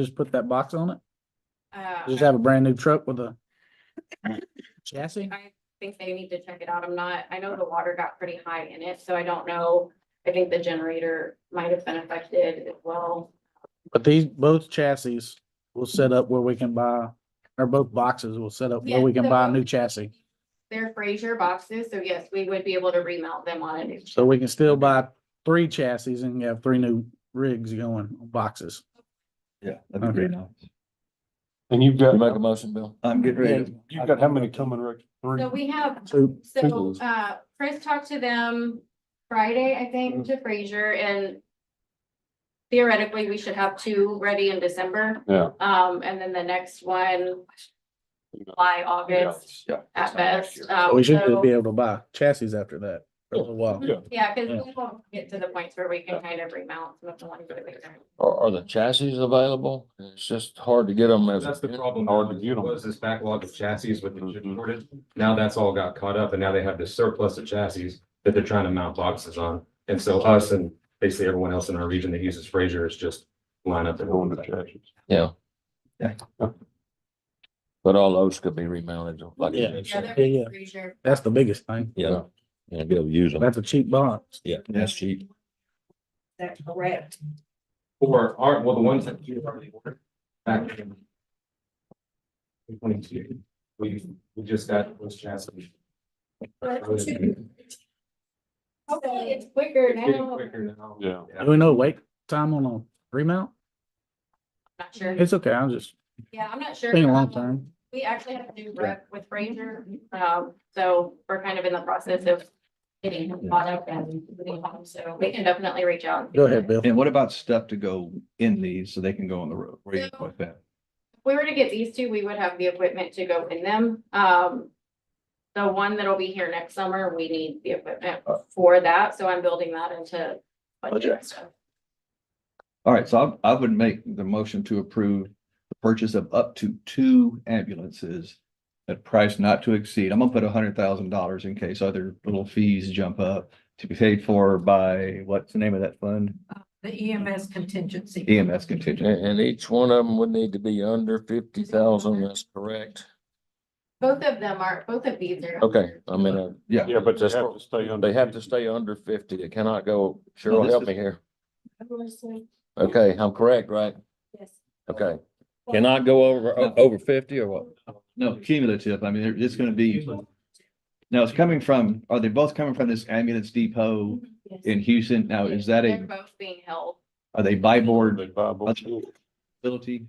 just put that box on it? Uh, Just I- have a brand new truck with a chassis? I think they need to check it out. I'm not, I know the water got pretty high in it, so I don't know. I think the generator might have been affected as well. But these, both chassis will set up where we can buy, or both boxes will set up where Yeah, we can buy a so- new chassis. They're Frazier boxes, so yes, we would be able to remount them on a new. So we can still buy three chassis and have three new rigs going, boxes. Yeah, that'd be great. And you've got, You make a motion, Bill? I'm getting ready. to- you've got how many coming, Rick? Three? So we have, So Two so, doors. uh, Chris talked to them Friday, I Mm-hmm. think, to Frazier and theoretically, we should have two ready in December. Yeah. Um, and then the next one by August Yeah. at best. Um, Oh, we should so- just be able to buy chassis after that for a little while. Yeah. Yeah, cause Yeah. we won't get to the points where we can kind of remount some of the ones that we don't. Are, are the chassis available? It's just hard to get them as. That's the problem. Hard now, to get 'em. Was this backlog of chassis with the chip Mhm. shortage? Now that's all got caught up and now they have this surplus of chassis that they're trying to mount boxes on. And so us and basically everyone else in our region that uses Frazier is just line up. They're and going to chassis. Yeah. Yeah. But all those could be remounted. like you Yeah. just Yeah, said. they're Yeah, yeah. pretty sure. That's the biggest thing. Yeah. And be able to use them. That's a cheap box. Yeah, that's cheap. That's correct. Or are, well, the ones that you already ordered. back in 22, we, we just got those chassis. But- It's getting Hopefully it's quicker now. quicker now. Yeah. Do we know wait time on a remount? Not sure. It's okay, I'm just Yeah, I'm not sure. thinking long Um, term. We actually have a new rep with Ranger, um, so we're kind of in the process of getting him caught up and moving on, so we can definitely reach out. Go ahead, Bill. And what about stuff to go in these so they can go on the road? Where you No. put that? If we were to get these two, we would have the equipment to go in them. Um, the one that'll be here next summer, we need the equipment Uh. for that, so I'm building that into budget. Budget. so. All right, so I, I would make the motion to approve the purchase of up to two ambulances at price not to exceed, I'm gonna put a hundred thousand dollars in case other little fees jump up to be paid for by, what's the name of that fund? The EMS contingency. EMS contingent. And, and each one of them would need to be under fifty thousand, that's correct. Both of them are, both of these are. Okay, I mean, uh, Yeah. Yeah, but they That's have what- to stay under. they have to stay under fifty. It cannot go, Cheryl, this help is- me here. Okay, I'm correct, right? Yes. Okay. Cannot go over, o- over fifty or what? No, cumulative. I mean, there- it's gonna be, now it's coming from, are they both coming from this ambulance depot in Houston? Now, is that They're a, both being held. are they by board They buy both. ability?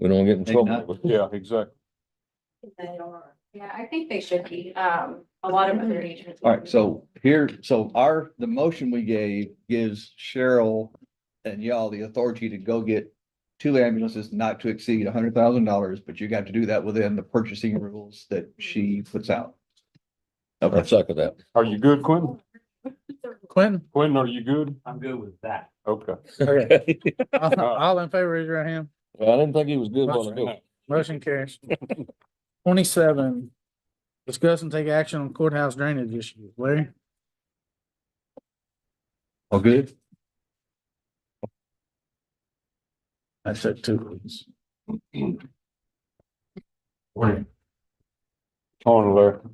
We don't get in Maybe trouble. not. with- Yeah, exactly. They are. Yeah, I think they should be. Um, a lot of other agents. All right, so here, so our, the motion we gave gives Cheryl and y'all the authority to go get two ambulances not to exceed hundred thousand dollars, but you got to do that within the purchasing rules that she puts out. I Okay, suck at that. Are you good, Quentin? Quentin? Quentin, are you good? I'm good with that. Okay. Okay. All all in favor, raise your hand. Well, I didn't think he was good while ago. Motion carries. Twenty-seven, discuss and take action on courthouse drainage issues. Larry? all good? I said two. Morning. On alert.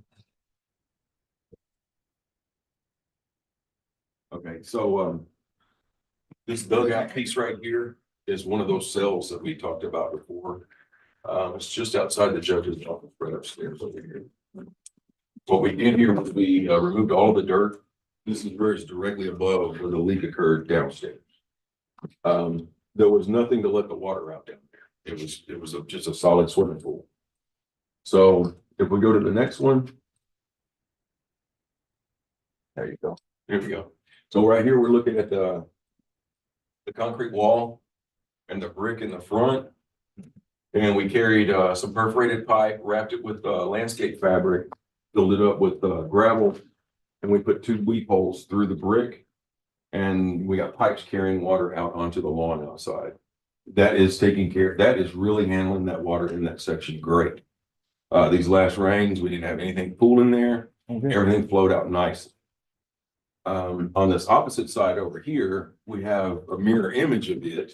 Okay, so, um, this dugout piece right here is one of those cells that we talked about before. Um, it's just outside the judge's office, right upstairs over here. What we did here was we uh, removed all the dirt. This is where it's directly above where the leak occurred downstairs. Um, there was nothing to let the water out down there. It was, it was a- just a solid swimming pool. So if we go to the next one. There you go. There we go. So right here, we're looking at the the concrete wall and the brick in the front. And we carried uh some perforated pipe, wrapped it with uh landscape fabric, filled it up with uh gravel. And we put two weep holes through the brick. And we got pipes carrying water out onto the lawn outside. That is taking care, that is really handling that water in that section great. Uh, these last rains, we didn't have anything pool in there. Everything flowed out nice. Um, on this opposite side over here, we have a mirror image of it.